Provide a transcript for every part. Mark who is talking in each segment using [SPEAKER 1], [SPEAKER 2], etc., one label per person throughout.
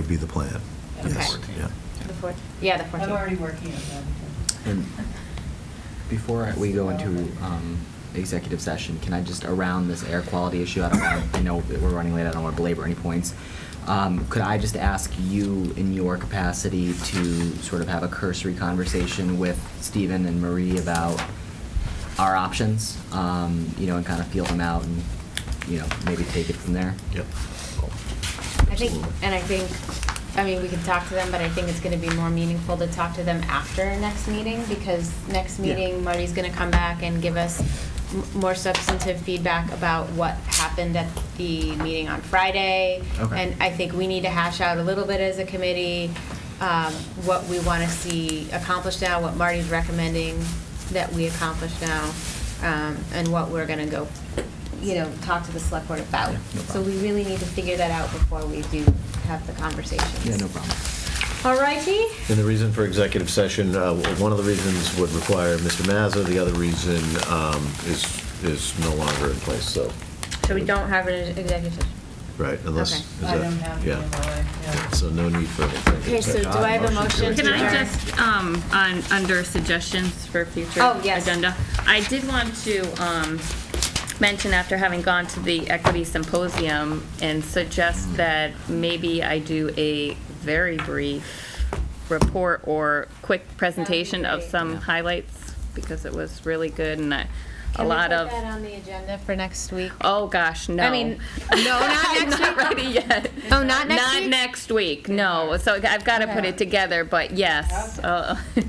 [SPEAKER 1] be the plan.
[SPEAKER 2] Okay.
[SPEAKER 1] Yes, yeah.
[SPEAKER 2] The fourth, yeah, the 14th.
[SPEAKER 3] I'm already working on that.
[SPEAKER 4] And Before we go into um, executive session, can I just, around this air quality issue, I don't want, I know that we're running late, I don't want to belabor any points. Um, Could I just ask you, in your capacity, to sort of have a cursory conversation with Stephen and Marie about our options? um, You know, and kind of feel them out and, you know, maybe take it from there?
[SPEAKER 1] Yep.
[SPEAKER 2] I think, and I think, I mean, we can talk to them, but I think it's gonna be more meaningful to talk to them after next meeting, because next
[SPEAKER 1] Yeah.
[SPEAKER 2] meeting, Marty's gonna come back and give us m- more substantive feedback about what happened at the meeting on Friday.
[SPEAKER 4] Okay.
[SPEAKER 2] And I think we need to hash out a little bit as a committee, um, what we wanna see accomplished now, what Marty's recommending that we accomplish now, um, and what we're gonna go, you know, talk to the select board about.
[SPEAKER 4] Yeah, no
[SPEAKER 2] So
[SPEAKER 4] problem.
[SPEAKER 2] we really need to figure that out before we do have the conversations.
[SPEAKER 4] Yeah, no problem.
[SPEAKER 2] All righty?
[SPEAKER 1] And the reason for executive session, uh, one of the reasons would require Mr. Mazza, the other reason um, is, is no longer in place, so.
[SPEAKER 2] So we don't have an executive session?
[SPEAKER 1] Right, unless.
[SPEAKER 2] Okay.
[SPEAKER 1] is
[SPEAKER 3] I
[SPEAKER 1] that-
[SPEAKER 3] don't have it
[SPEAKER 1] yeah.
[SPEAKER 3] in my life, yeah.
[SPEAKER 1] So no need for.
[SPEAKER 2] Okay, so do I have a motion to
[SPEAKER 5] Can I
[SPEAKER 2] adjourn?
[SPEAKER 5] just, um, on, under suggestions for future
[SPEAKER 2] Oh, yes.
[SPEAKER 5] agenda? I did want to, um, mention after having gone to the equity symposium and suggest that maybe I do a very brief report or quick presentation of
[SPEAKER 2] great.
[SPEAKER 5] some highlights because it was really good and I- a
[SPEAKER 2] Can we put
[SPEAKER 5] lot of,
[SPEAKER 2] that on the agenda for next week?
[SPEAKER 5] oh gosh, no.
[SPEAKER 2] I mean, no, not
[SPEAKER 5] I'm
[SPEAKER 2] next
[SPEAKER 5] not
[SPEAKER 2] week?
[SPEAKER 5] ready yet.
[SPEAKER 2] Oh, not next
[SPEAKER 5] Not
[SPEAKER 2] week?
[SPEAKER 5] next week, no. So I've got to put it together, but yes. uh,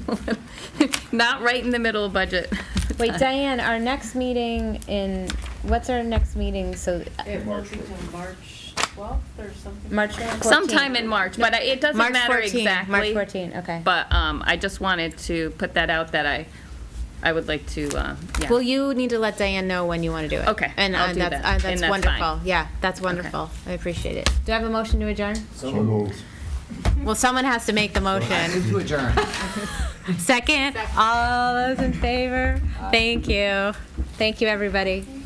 [SPEAKER 5] Not right in the middle of budget.
[SPEAKER 2] Wait, Diane, our next meeting in, what's our next meeting, so? uh,
[SPEAKER 3] It won't be till March 12th or something.
[SPEAKER 2] March 14th.
[SPEAKER 5] Sometime in March, but I- it doesn't
[SPEAKER 2] March
[SPEAKER 5] matter
[SPEAKER 2] 14, March
[SPEAKER 5] exactly.
[SPEAKER 2] 14, okay.
[SPEAKER 5] But um, I just wanted to put that out that I, I would like to, uh, yeah.
[SPEAKER 2] Well, you need to let Diane know when you want to do it.
[SPEAKER 5] Okay,
[SPEAKER 2] And
[SPEAKER 5] I'll
[SPEAKER 2] uh,
[SPEAKER 5] do
[SPEAKER 2] that's,
[SPEAKER 5] that,
[SPEAKER 2] uh,
[SPEAKER 5] and
[SPEAKER 2] that's
[SPEAKER 5] that's fine.
[SPEAKER 2] wonderful. Yeah, that's wonderful. I appreciate it. Do I have a motion to adjourn?
[SPEAKER 4] So moved.
[SPEAKER 2] Well, someone has to make the motion.
[SPEAKER 4] To adjourn.
[SPEAKER 2] Second, all those in favor? Thank you. Thank you, everybody.